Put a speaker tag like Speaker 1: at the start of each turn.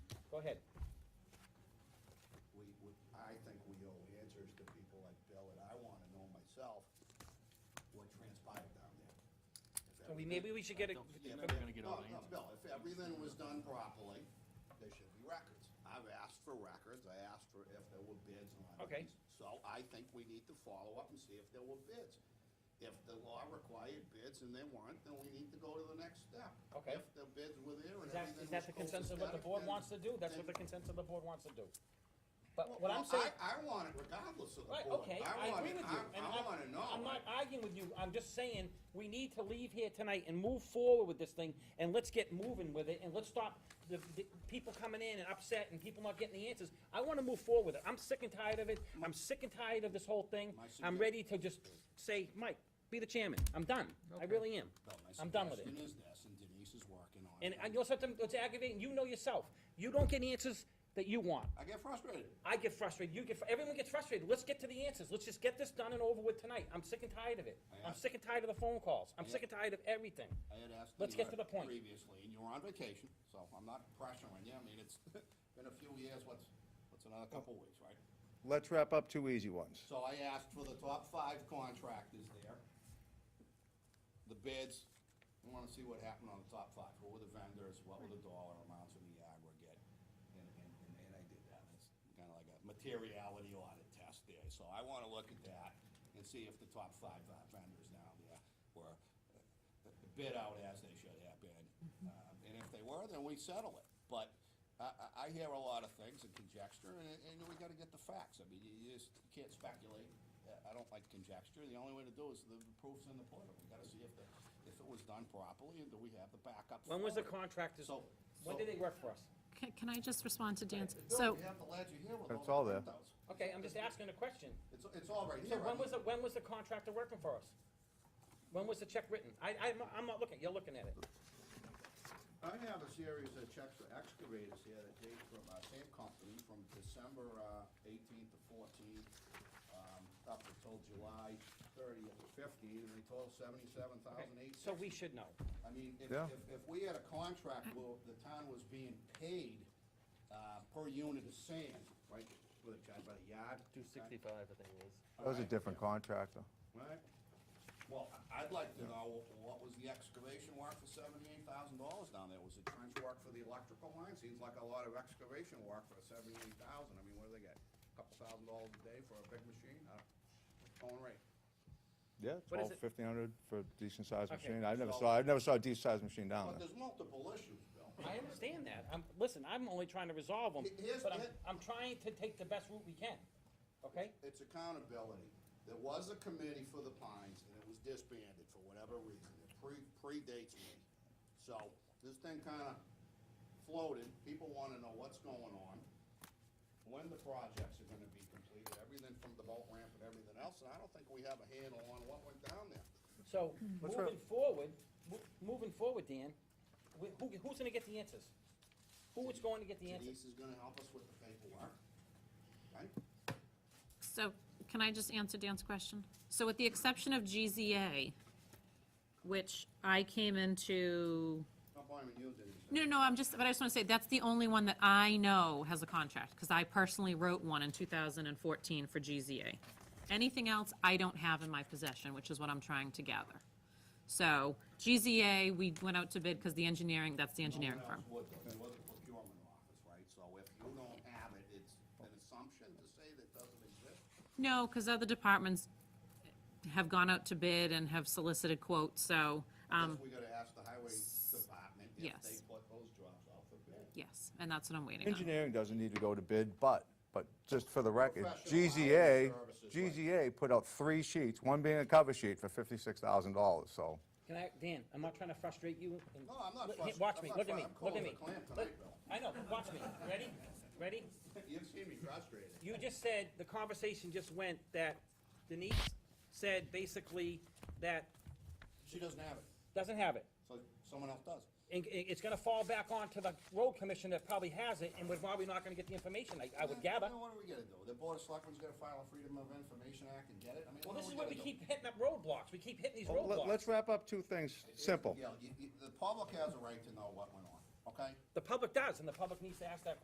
Speaker 1: ahead.
Speaker 2: we, we- I think we owe answers to people like Bill, and I want to know myself what transpired down there.
Speaker 1: So
Speaker 2: If
Speaker 1: we, maybe we should get a,
Speaker 3: don't think
Speaker 2: Yeah,
Speaker 3: You're
Speaker 2: but-
Speaker 3: never gonna get
Speaker 2: no,
Speaker 3: all the
Speaker 2: no,
Speaker 3: answers.
Speaker 2: Bill, if everything was done properly, there should be records. I've asked for records, I asked for if there were bids on
Speaker 1: Okay.
Speaker 2: these. So I think we need to follow up and see if there were bids. If the law required bids and they weren't, then we need to go to the next step.
Speaker 1: Okay.
Speaker 2: If the bids were there and
Speaker 1: is that,
Speaker 2: everything
Speaker 1: is
Speaker 2: was
Speaker 1: that the consensus of what the
Speaker 2: copacetic,
Speaker 1: board
Speaker 2: then-
Speaker 1: wants to do? That's what the
Speaker 2: then-
Speaker 1: consensus of the board wants to do. But what
Speaker 2: Well,
Speaker 1: I'm saying.
Speaker 2: I, I want it regardless of the
Speaker 1: Right,
Speaker 2: board.
Speaker 1: okay,
Speaker 2: I
Speaker 1: I
Speaker 2: want
Speaker 1: agree
Speaker 2: it-
Speaker 1: with you.
Speaker 2: I-
Speaker 1: and
Speaker 2: I wanna know.
Speaker 1: I'm not arguing with you, I'm just saying, we need to leave here tonight and move forward with this thing, and let's get moving with it, and let's stop the, the people coming in and upset and people not getting the answers. I wanna move forward with it, I'm sick and tired of it, I'm sick and tired of this whole thing,
Speaker 2: My
Speaker 1: I'm
Speaker 2: sugge-
Speaker 1: ready to just say, Mike, be the chairman, I'm done, I really am.
Speaker 2: Bill, my
Speaker 1: I'm done with it.
Speaker 2: suggestion is this, and Denise is working on
Speaker 1: And
Speaker 2: it.
Speaker 1: I know something, it's aggravating, you know yourself, you don't get answers that you want.
Speaker 2: I get frustrated.
Speaker 1: I get frustrated, you get, fr- everyone gets frustrated, let's get to the answers, let's just get this done and over with tonight, I'm sick and tired of it.
Speaker 2: I
Speaker 1: I'm
Speaker 2: asked-
Speaker 1: sick and tired of the phone calls, I'm
Speaker 2: I
Speaker 1: sick and tired of everything.
Speaker 2: I had asked.
Speaker 1: Let's
Speaker 2: you
Speaker 1: get
Speaker 2: uh,
Speaker 1: to the point.
Speaker 2: Previously, and you were on vacation, so I'm not pressuring you. I mean, it's been a few years, what's, what's another couple weeks, right?
Speaker 4: Let's wrap up two easy ones.
Speaker 2: So I asked for the top five contractors there. The bids, I wanna see what happened on the top five. Who were the vendors, what were the dollar amounts in the aggregate? And, and, and- and I did that. It's kinda like a materiality audit test there. So I wanna look at that and see if the top five uh, vendors down there were uh, bid out as they should have been. Um, And if they were, then we settle it. But I, I, I hear a lot of things and conjecture, and, and we gotta get the facts. I mean, you just can't speculate. Uh, I don't like conjecture. The only way to do is the proof's in the pudding. We gotta see if the, if it was done properly, and do we have the backup?
Speaker 1: When was the
Speaker 2: for it?
Speaker 1: contractors,
Speaker 2: So-
Speaker 1: when did they work for us?
Speaker 5: Can, can I just respond to Dan's?
Speaker 2: Bill,
Speaker 5: So,
Speaker 2: we have the ledger here with
Speaker 4: That's
Speaker 2: all
Speaker 4: all
Speaker 2: the
Speaker 4: there.
Speaker 2: printouts.
Speaker 1: Okay, I'm just asking a question.
Speaker 2: It's, it's all right
Speaker 1: So
Speaker 2: here.
Speaker 1: when was the, when was the contractor working for us? When was the check written? I, I'm, not- I'm not looking, you're looking at it.
Speaker 2: I have a series of checks for excavators here that date from, uh, same company from December, uh, eighteenth to fourteenth, um, up until July thirtieth to fifteenth, and they total seventy-seven
Speaker 1: Okay,
Speaker 2: thousand eight
Speaker 1: So
Speaker 2: sixty.
Speaker 1: we should know.
Speaker 2: I mean, if,
Speaker 4: Yeah.
Speaker 2: if, if we had a contract where the town was being paid, uh, per unit of sand, right, with a charge by the yard.
Speaker 3: Two sixty-five, I think it was.
Speaker 4: That was a different contractor.
Speaker 2: Right. Well, I- I'd like to know, what was the excavation work for seventy-eight thousand dollars down there? Was it trench work for the electrical line? Seems like a lot of excavation work for seventy-eight thousand. I mean, what do they get? A Couple thousand dollars a day for a big machine? I don't- Going rate.
Speaker 4: Yeah,
Speaker 1: What is it?
Speaker 4: twelve, fifteen hundred for a decent sized
Speaker 1: Okay,
Speaker 4: machine. I never
Speaker 2: so-
Speaker 4: saw, I never saw a decent sized machine down
Speaker 2: But
Speaker 4: there.
Speaker 2: there's multiple issues, Bill.
Speaker 1: I understand that, I'm, listen, I'm only trying to resolve them,
Speaker 2: Here's-
Speaker 1: but I'm,
Speaker 2: here-
Speaker 1: I'm trying to take the best route we can, okay?
Speaker 2: It's accountability. There was a committee for the Pines, and it was disbanded for whatever reason. It pre, predates me. So, this thing kinda floated. People wanna know what's going on, when the projects are gonna be completed, everything from the boat ramp and everything else, and I don't think we have a handle on what went down there.
Speaker 1: So,
Speaker 4: Let's
Speaker 1: moving
Speaker 4: wrap-
Speaker 1: forward, mo- moving forward, Dan, wh- who, who's gonna get the answers? Who is going to get the answers?
Speaker 2: Denise is gonna help us with the paperwork, right?
Speaker 5: so can I just answer Dan's question? So with the exception of GZA, which I came into,
Speaker 2: Don't blame you, Denise.
Speaker 5: no, no, I'm just, but I just want to say, that's the only one that I know has a contract, because I personally wrote one in 2014 for GZA. Anything else, I don't have in my possession, which is what I'm trying to gather. So GZA, we went out to bid because the engineering, that's the engineering
Speaker 2: No one
Speaker 5: firm.
Speaker 2: else would, though. It was a procurement office, right? So if you don't have it, it's an assumption to say that doesn't exist.
Speaker 5: No, because other departments have gone out to bid and have solicited quotes, so, um,
Speaker 2: Guess we gotta ask the highway department if they
Speaker 5: yes.
Speaker 2: put those jobs out for bid.
Speaker 5: yes, and that's what I'm waiting on.
Speaker 4: Engineering doesn't need to go to bid, but, but just for the record,
Speaker 2: Professional
Speaker 4: GZA,
Speaker 2: hourly services, right.
Speaker 4: GZA put out three sheets, one being a cover sheet for fifty-six thousand dollars, so.
Speaker 1: Can I, Dan, I'm not trying to frustrate you. and-
Speaker 2: No, I'm not
Speaker 1: Look,
Speaker 2: frust-
Speaker 1: Watch
Speaker 2: I'm
Speaker 1: me,
Speaker 2: not
Speaker 1: look at
Speaker 2: frust-
Speaker 1: me,
Speaker 2: I'm
Speaker 1: look
Speaker 2: calling
Speaker 1: at
Speaker 2: the
Speaker 1: me.
Speaker 2: clam tonight,
Speaker 1: Look-
Speaker 2: Bill.
Speaker 1: I know, watch me, ready, ready?
Speaker 2: You've seen me frustrated.
Speaker 1: You just said, the conversation just went that Denise said basically that
Speaker 2: She doesn't have it,
Speaker 1: doesn't have it.
Speaker 2: so someone else does.
Speaker 1: And it- it's gonna fall back on to the road commissioner that probably has it, and we're probably not gonna get the information, I, I would
Speaker 2: Yeah,
Speaker 1: gather.
Speaker 2: then What are we gonna do? The board of selectmen's gonna file a Freedom of Information Act and get it? I mean,
Speaker 1: Well,
Speaker 2: what are
Speaker 1: this
Speaker 2: we
Speaker 1: is where
Speaker 2: gonna
Speaker 1: we
Speaker 2: do?
Speaker 1: keep hitting up roadblocks, we keep hitting these
Speaker 4: Well, Oh, let-
Speaker 1: roadblocks.
Speaker 4: Let's wrap up two things, simple.
Speaker 2: Yeah, you- you- the public has a right to know what went on, okay?
Speaker 1: The public does, and the public needs to ask that question.